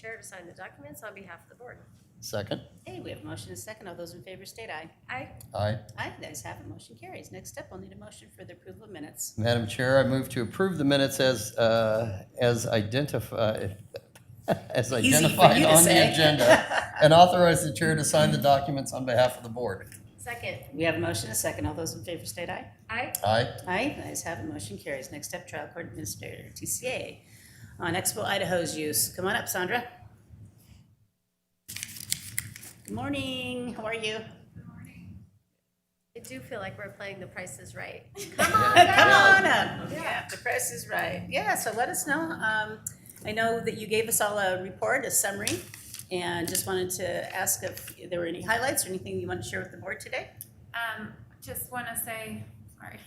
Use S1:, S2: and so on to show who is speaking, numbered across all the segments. S1: chair to sign the documents on behalf of the board.
S2: Second?
S3: Hey, we have a motion and a second. All those in favor state aye.
S1: Aye.
S2: Aye.
S3: Aye, the ayes have it, motion carries. Next up, I'll need a motion for the approval of minutes.
S2: Madam Chair, I move to approve the minutes as, uh, as identified, as
S3: Easy for
S2: identified
S3: you to
S2: on the
S3: say.
S2: agenda, and authorize the chair to sign the documents on behalf of the board.
S1: Second.
S3: We have a motion and a second. All those in favor state aye.
S1: Aye.
S2: Aye.
S3: Aye, the ayes have it, motion carries. Next up, trial court administrator, TCA, on Expo Idaho's use. Come on up, Sandra. Good morning, how are you?
S1: I do feel like we're playing The Price is Right.
S3: Come on up. Yeah, the price is right. Yeah, so let us know. Um, I know that you gave us all a report, a summary, and just wanted to ask if there were any highlights or anything you want to share with the board today?
S4: Um, just want to say, sorry,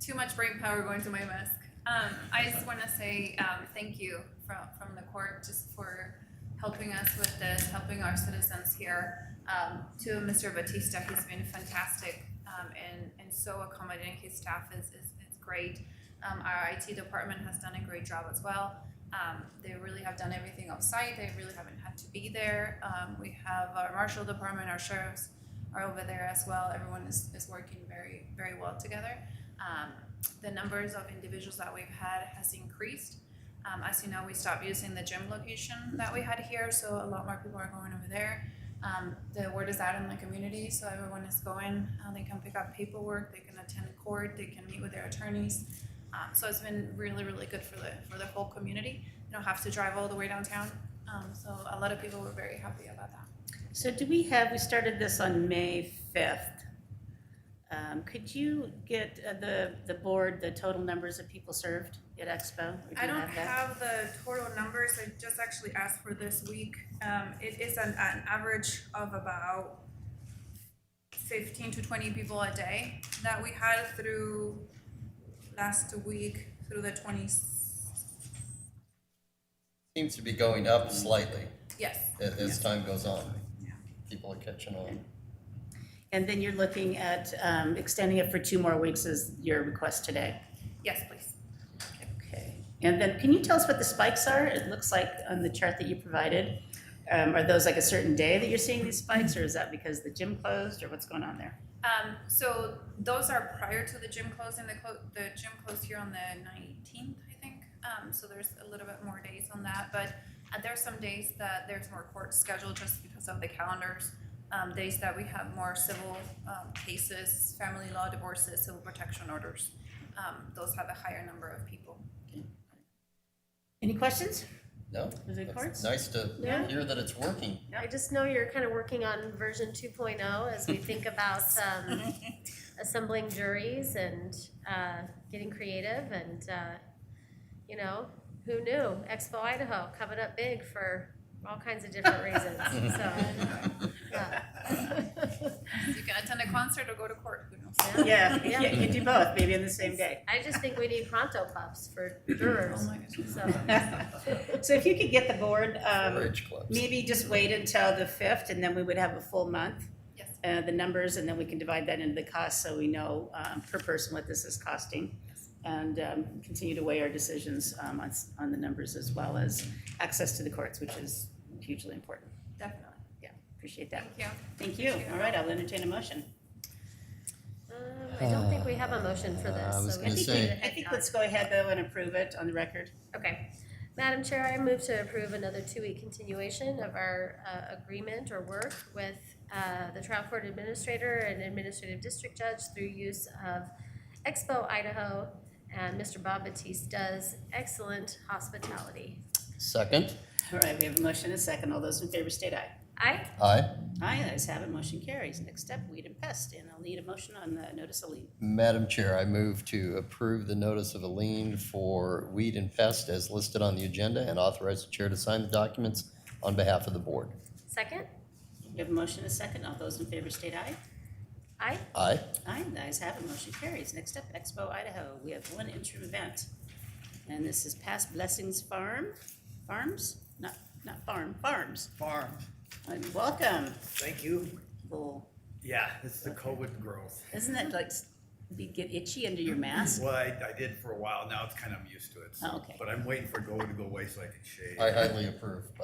S4: too much brain power going to my mask. Um, I just want to say um, thank you from, from the court just for helping us with this, helping our citizens here. Um, to Mr. Batista, he's been fantastic um, and, and so accommodating. His staff is, is, is great. Um, our IT department has done a great job as well. Um, they really have done everything offsite. They really haven't had to be there. Um, we have our marshal department, our sheriffs, are over there as well. Everyone is, is working very, very well together. Um, the numbers of individuals that we've had has increased. Um, as you know, we stopped using the gym location that we had here, so a lot more people are going over there. Um, the word is out in the community, so everyone is going. Uh, they can pick up paperwork, they can attend court, they can meet with their attorneys. Um, so it's been really, really good for the for the whole community. You don't have to drive all the way downtown. Um, so a lot of people were very happy about that.
S3: So do we have, we started this on May fifth. Um, could you get uh, the, the board, the total numbers of people served at Expo? Or do
S4: I
S3: you
S4: don't
S3: that?
S4: have the total numbers, I just actually asked for this week. Um, it is an, an average of about fifteen to twenty people a day that we had through last week, through the twenty,
S2: Seems to be going up slightly
S4: yes.
S2: a- as time goes on. People are catching on.
S3: And then you're looking at, um, extending it for two more weeks is your request today?
S4: Yes, please.
S3: Okay, and then can you tell us what the spikes are? It looks like on the chart that you provided, um, are those like a certain day that you're seeing these spikes, or is that because the gym closed, or what's going on there?
S4: Um, so those are prior to the gym closing, the clo- the gym closed here on the nineteenth, I think. Um, so there's a little bit more days on that, but uh, there's some days that there's more court scheduled just because of the calendars. Um, days that we have more civil, um, cases, family law divorces, civil protection orders. Um, those have a higher number of people.
S3: Any questions?
S2: No?
S3: Is it
S2: It's
S3: courts?
S2: Nice to
S3: Yeah.
S2: hear that it's working.
S1: I just know you're kind of working on version 2.0 as we think about um, assembling juries and uh, getting creative and, uh, you know, who knew? Expo Idaho coming up big for all kinds of different reasons, so. uh, yeah.
S4: You can attend a concert or go to court, who knows?
S3: Yeah,
S1: Yeah.
S3: yeah, you can do both, maybe on the same day.
S1: I just think we need pronto pups for
S3: Oh
S1: jurors, so. uh,
S3: So if you could get the board, um,
S2: Rage clubs.
S3: maybe just wait until the fifth, and then we would have a full month,
S4: Yes,
S3: uh, the numbers, and then we can divide that into the cost, so we know, um, per person what this is costing. And, um, continue to weigh our decisions, um, on, s- on the numbers as well as access to the courts, which is hugely important.
S4: definitely.
S3: Appreciate that.
S4: Thank you.
S3: Thank you. All right, I'll entertain a motion.
S1: Um, I don't think we have a motion for
S2: Uh, I
S1: this,
S2: was
S1: so we
S2: gonna
S1: need to
S2: say-
S1: head
S3: I think
S1: down.
S3: let's go ahead though and approve it on the record.
S1: Okay. Madam Chair, I move to approve another two-week continuation of our uh, agreement or work with uh, the trial court administrator and administrative district judge through use of Expo Idaho and Mr. Bob Batista's excellent hospitality.
S2: Second?
S3: All right, we have a motion and a second. All those in favor state aye.
S1: Aye?
S2: Aye.
S3: Aye, ayes have it, motion carries. Next up, weed and pest, and I'll need a motion on the notice of lien.
S2: Madam Chair, I move to approve the notice of a lien for weed and pest as listed on the agenda and authorize the chair to sign the documents on behalf of the board.
S1: Second?
S3: We have a motion and a second. All those in favor state aye.
S1: Aye?
S2: Aye.
S3: Aye, the ayes have it, motion carries. Next up, Expo Idaho. We have one interim event. And this is Past Blessings Farm, Farms? Not, not farm, Farms.
S5: farm.
S3: And Welcome.
S5: Thank you.
S3: Well,
S5: Yeah, it's the COVID growth.
S3: Isn't that like, you get itchy under your mask?
S5: Well, I, I
S3: Oh.
S5: did for a while, now it's kind of, I'm used to it, so,
S3: Okay.
S5: but I'm waiting for Go to go away so I can shave.
S2: I highly approve, by